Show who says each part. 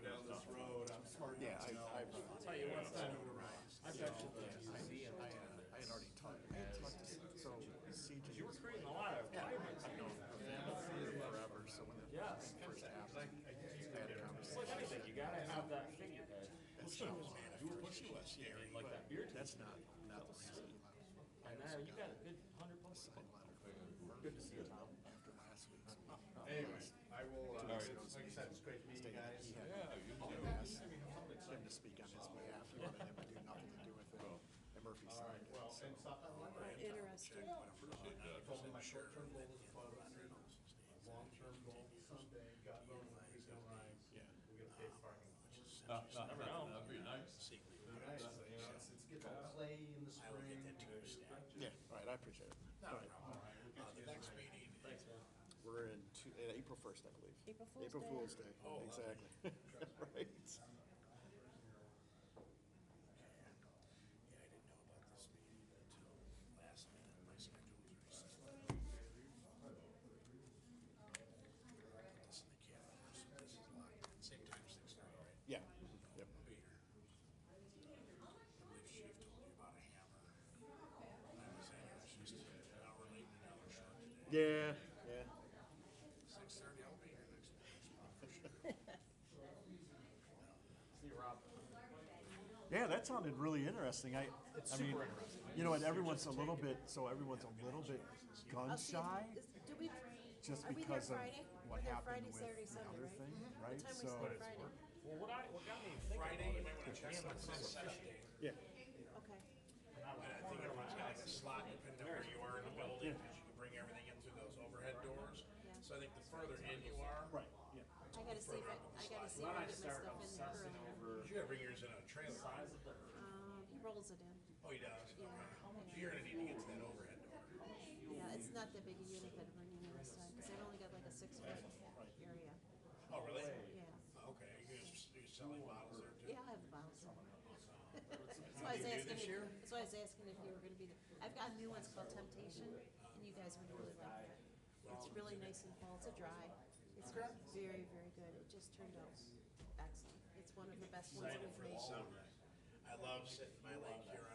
Speaker 1: I had already talked, I had talked to, C- so CJ.
Speaker 2: You were creating a lot of vibrance.
Speaker 1: I've known her family forever, so when the
Speaker 2: Yeah.
Speaker 1: thing first happened, I had a
Speaker 2: It's like
Speaker 1: conversation.
Speaker 2: anything, you gotta have that figurehead.
Speaker 1: That's
Speaker 3: Pushing
Speaker 1: not
Speaker 3: was,
Speaker 1: why,
Speaker 3: you were pushing us, yeah.
Speaker 2: I mean, like that beer
Speaker 1: that's not, not the reason.
Speaker 2: And now you got a good hundred plus.
Speaker 1: Side letter
Speaker 2: Good to see you, Tom.
Speaker 1: after last week's meeting.
Speaker 4: Anyway, I will, uh, like I said, it's great meeting you guys.
Speaker 1: He had asked him to speak on his behalf, he wanted him to do nothing to do with it, and Murphy signed it, so.
Speaker 4: And stop that one.
Speaker 5: Interesting.
Speaker 4: Told him my short-term goal is five hundred, my long-term goal is someday, God willing, when we go live, we get a big parking lot.
Speaker 2: Never know.
Speaker 3: That'd be nice.
Speaker 4: It'd be nice, you know, it's, it's good to play in the spring.
Speaker 1: Yeah, all right, I appreciate it. Uh, All right,
Speaker 3: The next meeting.
Speaker 2: Thanks, man.
Speaker 1: we're in two, uh, April first, I believe.
Speaker 5: April Fool's Day.
Speaker 1: April Fool's Day, exactly, right.
Speaker 3: Yeah, I didn't know about this meeting until last minute, my schedule was reset. Put this in the calendar, so this is live, same time, six thirty, right?
Speaker 1: Yeah, yep,
Speaker 3: I'll be here. I believe Chief told you about a hammer. I was in here, she's an hour late, an hour short today.
Speaker 1: yeah, yeah.
Speaker 3: Six thirty, I'll be here next week.
Speaker 2: See you, Rob.
Speaker 1: Yeah, that sounded really interesting. I, I mean, you know, and everyone's a little bit, so everyone's a little bit gun
Speaker 5: I'll see if-
Speaker 1: shy,
Speaker 5: is- Do we,
Speaker 1: just
Speaker 5: are we there
Speaker 1: because of
Speaker 5: Friday?
Speaker 1: what
Speaker 5: We're there
Speaker 1: happened
Speaker 5: Friday,
Speaker 1: with
Speaker 5: Saturday,
Speaker 1: the
Speaker 5: Sunday,
Speaker 1: other
Speaker 5: right?
Speaker 1: thing,
Speaker 5: What
Speaker 1: right?
Speaker 5: time we
Speaker 1: So,
Speaker 5: start Friday?
Speaker 2: Well, what I, what got me thinking. Friday, you might wanna check something.
Speaker 1: yeah,
Speaker 5: Okay.
Speaker 3: I think everyone's got like a slot depending on where you are in the building, because you can bring everything in through those overhead doors. So I think the further in you are,
Speaker 1: right, yeah.
Speaker 5: I gotta see if I, I gotta see
Speaker 2: Why
Speaker 5: if I
Speaker 2: don't I
Speaker 5: get my
Speaker 2: start
Speaker 5: stuff in there
Speaker 2: obsessing
Speaker 5: earlier.
Speaker 2: over
Speaker 3: you gotta bring yours in on a trailer.
Speaker 2: size of the earth?
Speaker 5: Um, he rolls it in.
Speaker 3: Oh, he does? Okay. You're gonna need to get to that overhead door.
Speaker 5: Yeah, it's not that big a unit that I'm running in this time, cause I've only got like a six foot area.
Speaker 3: Oh, really?
Speaker 5: Yeah.
Speaker 3: Oh, Okay, you're, just- you're selling bottles there too?
Speaker 5: Yeah, I have bounce. That's why I was asking, if- that's why I was asking if you were gonna be there. I've got a new ones called Temptation, and you guys would really like that. It's really nice and fall, it's a dry, it's very, very good, it just turned out excellent. It's one of the best ones that we've made.
Speaker 3: I love sitting in my lake here